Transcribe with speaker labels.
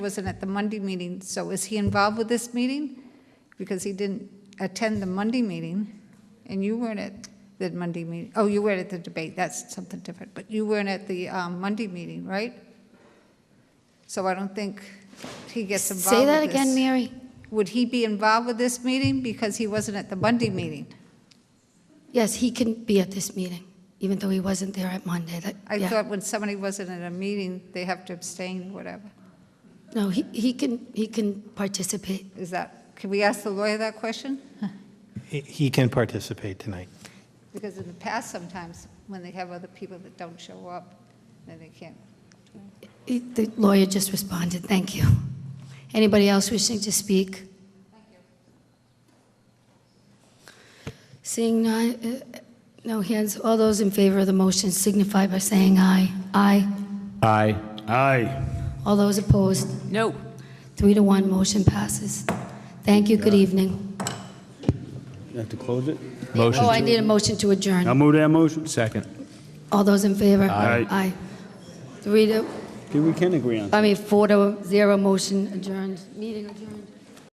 Speaker 1: wasn't at the Monday meeting, so is he involved with this meeting? Because he didn't attend the Monday meeting, and you weren't at the Monday meeting, oh, you weren't at the debate, that's something different, but you weren't at the um, Monday meeting, right? So I don't think he gets involved
Speaker 2: Say
Speaker 1: with this.
Speaker 2: that again, Mary.
Speaker 1: Would he be involved with this meeting because he wasn't at the Monday meeting?
Speaker 2: Yes, he can be at this meeting, even though he wasn't there at Monday. That-
Speaker 1: I
Speaker 2: yeah.
Speaker 1: thought when somebody wasn't at a meeting, they have to abstain, whatever.
Speaker 2: No, he, he can, he can participate.
Speaker 1: Is that, can we ask the lawyer that question?
Speaker 3: He- He can participate tonight.
Speaker 1: Because in the past, sometimes, when they have other people that don't show up, then they can't.
Speaker 2: He- The lawyer just responded, thank you. Anybody else wishing to speak? Seeing none, uh, no hands, all those in favor of the motion signify by saying aye. Aye.
Speaker 4: Aye. Aye.
Speaker 2: All those opposed?
Speaker 5: No.
Speaker 2: Three to one, motion passes. Thank you, good evening.
Speaker 4: You have to close it?
Speaker 2: Oh, I need a motion to adjourn.
Speaker 4: I'll move that motion. Second.
Speaker 2: All those in favor?
Speaker 4: Aye.
Speaker 2: Aye. Three to,
Speaker 4: Okay, we can agree on
Speaker 2: I mean, four to zero, motion adjourned, meeting adjourned.